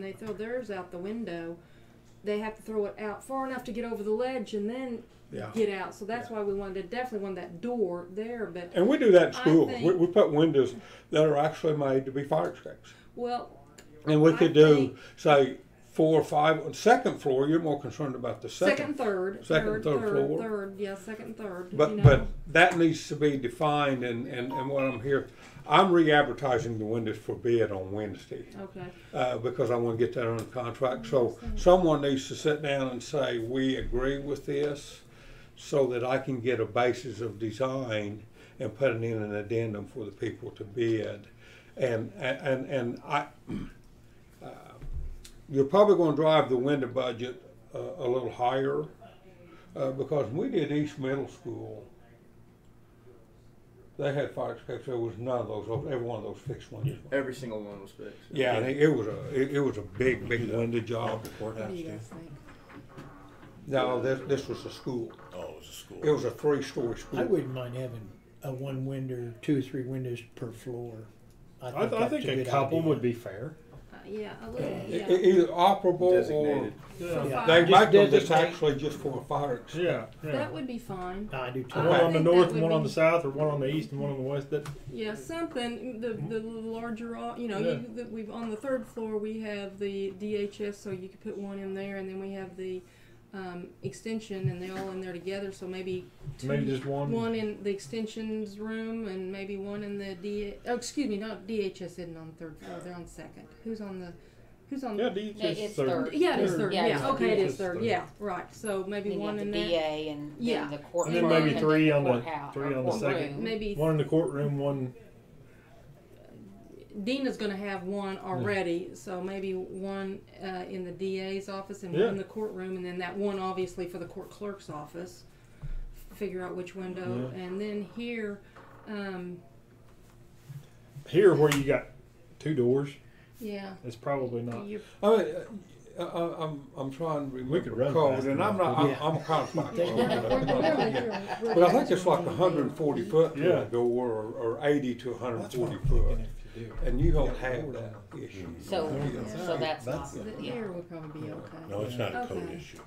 they throw theirs out the window, they have to throw it out far enough to get over the ledge and then Oh. Yeah. get out. So that's why we wanted to definitely want that door there. But And we do that in I schools. We, think- we put windows that are actually made to be fire escapes. well, And we I could do, think- say, four or five on second floor, you're more concerned about the second, second. third, second, third, third floor. third, yeah, second, and third. But, you know. but that needs to be defined and, and, and what I'm here, I'm re-advertising the windows for bid on Wednesday. okay, uh, because I want to get that under contract. So someone needs to sit down and say, we agree with this, so that I can get a basis of design and putting in an addendum for the people to bid. And, and, and I, uh, you're probably going to drive the window budget uh, a little higher, uh, because when we did East Middle School, they had fire escapes, there was none of those, open. every one of those fixed ones. Every single one was fixed. Yeah, and it, it was a it, it was a big big window job. what do you guys think? No, this this was a school. Oh, it was a school. It was a three story school. I wouldn't mind having a one window, two or three windows per floor. I, th- I that's think a good couple idea. would be fair. Uh, yeah, a little, E- yeah. e- Either operable Designated. for Yeah. fire. or they Just make them that's designate. actually just for a fire. exit. Yeah, yeah. That would be fine. No, I do too. One I on the think that north, would and one on be- the south, or one on the east, and one on the west. That Yeah, something. The the larger, au- you know, Yeah. you, the, we've on the third floor we have the DHS, so you could put one in there, and then we have the um, extension, and they're all in there together. So maybe two, maybe just one. one in the extensions room, and maybe one in the D. Oh, excuse me, not DHS isn't on the third floor. They're on second. Who's on the? Who's on? Yeah, D Yeah, it's third. Yeah, it is third. Yeah, Yeah, it's okay, it is DHS third. third. Yeah, right. So maybe Then you one have the in there. DA and Yeah. then the court. And then room maybe the three on the- courthouse- three or on the courtroom. second. Maybe One in the courtroom, one. Dina's going to have one already, so maybe one uh, in the DA's office and Yeah. one in the courtroom, and then that one obviously for the court clerk's office. Figure out which window, and then here, um, Here, where you got two doors, yeah. it's probably not. You, I mean, uh, uh, I'm I'm trying to remember could run code, fast and I'm enough, not I'm, yeah. I'm kind of like, Yeah. but I think it's like 140 foot to Yeah. a door or, or 80 to That's what 140 I'm foot, thinking if you do. and you don't have that issue. So, Yeah. so that's not, That's the yeah, here would probably be okay. No, it's not a code Okay. issue.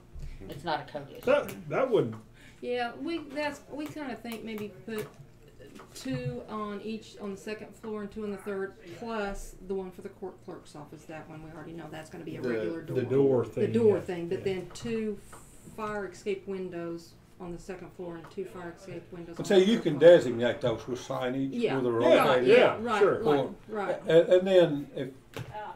it's not a code issue. That that would. Yeah, we that's we kind of think maybe put two on each on the second floor and two on the third, plus the one for the court clerk's office. That one we already know that's going to be a The- regular door. the door thing. the door yeah. thing, but Yeah. then two fire escape windows on the second floor and two fire escape windows. And on the so you third can floor. designate those with signage Yeah. with a Right, rotated. Yeah, right, sure. like- Or- right. And, and then if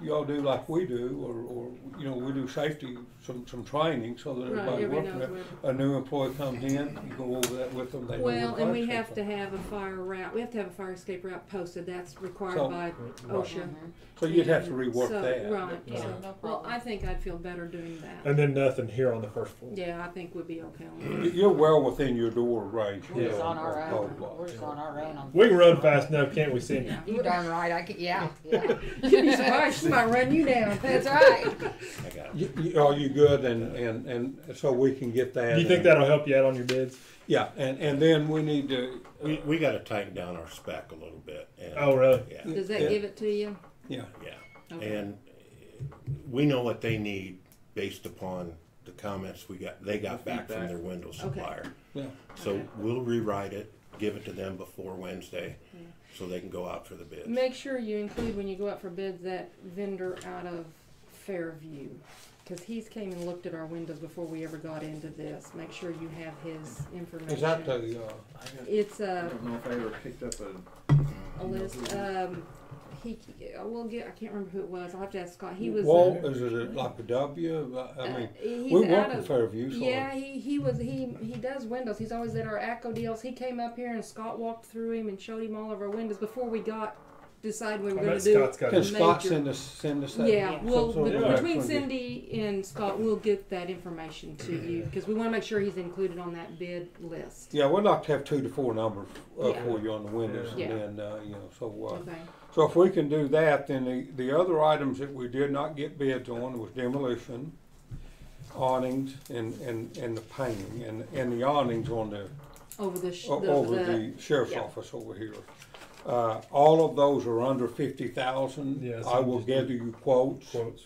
y'all do like we do, or, or, you know, we do safety, some, some training so that Right, everybody everybody works knows there. A new employee comes in, you go over that with them, they know. Well, what and we fire have to escape have a fire route. We have to have a fire escape route posted. That's required So- by OSHA. are. So you'd have to rework So, that. uh, Right. Yeah, so- no well, problem. I think I'd feel better doing that. And then nothing here on the first floor. Yeah, I think we'd be okay on You- You're well within your door range. We're here just on our of code own, block. we're just on our own on. We can run fast enough, can't we, Cindy? that. You darn right, I could, yeah, yeah. Yeah. You'd be surprised. She might run you down. That's right. I got it. You- you- Are you good and, and, and so we can get that? Do you think and- that'll help you out on your bids? Yeah, and, and then we need to, We, we got to tighten down our spec a little bit. And, Oh, really? Yeah, Does that Yeah. give it to you? yeah. yeah. Okay. And uh, we know what they need based upon the comments we got. They got back from their window supplier. Yeah. So Okay. we'll rewrite it, give it to them before Wednesday, so they can go out for the bids. Make sure you include when you go out for bids that vendor out of Fairview, because he's came and looked at our windows before we ever got into this. Make sure you have his information. Is that the, uh, I, got, It's I a, don't know if I ever picked up a. uh, a list, um, he, I will get, I can't remember who it was, I'll have to ask Scott, he was. uh, wall, is it like a W? I- I mean, uh, he's we out work in of- Fairview, so. Yeah, he, he was he he does windows. He's always at our ACO deals. He came up here and Scott walked through him and showed him all of our windows before we got decided we I were going bet to do. Scott's got Can it. Yes. Scott major- send us, send us that? Yeah, well, Some sort of be- between background. Cindy and Scott, we'll get that information to you, because we wanna make sure he's included on that bid list. Yeah, we'd like to have two to four numbers uh, Yeah. for you on the windows, Yeah. and then, uh, you know, so, uh, Okay, so if we can do that, then the, the other items that we did not get bids on was demolition, awnings, and, and, and the painting, and, and the awnings on the, over the, sh- the, o- over the the, sheriff's yeah. office over here. Uh, all of those are under fifty thousand. Yeah, so I will just do gather you quotes. Quotes.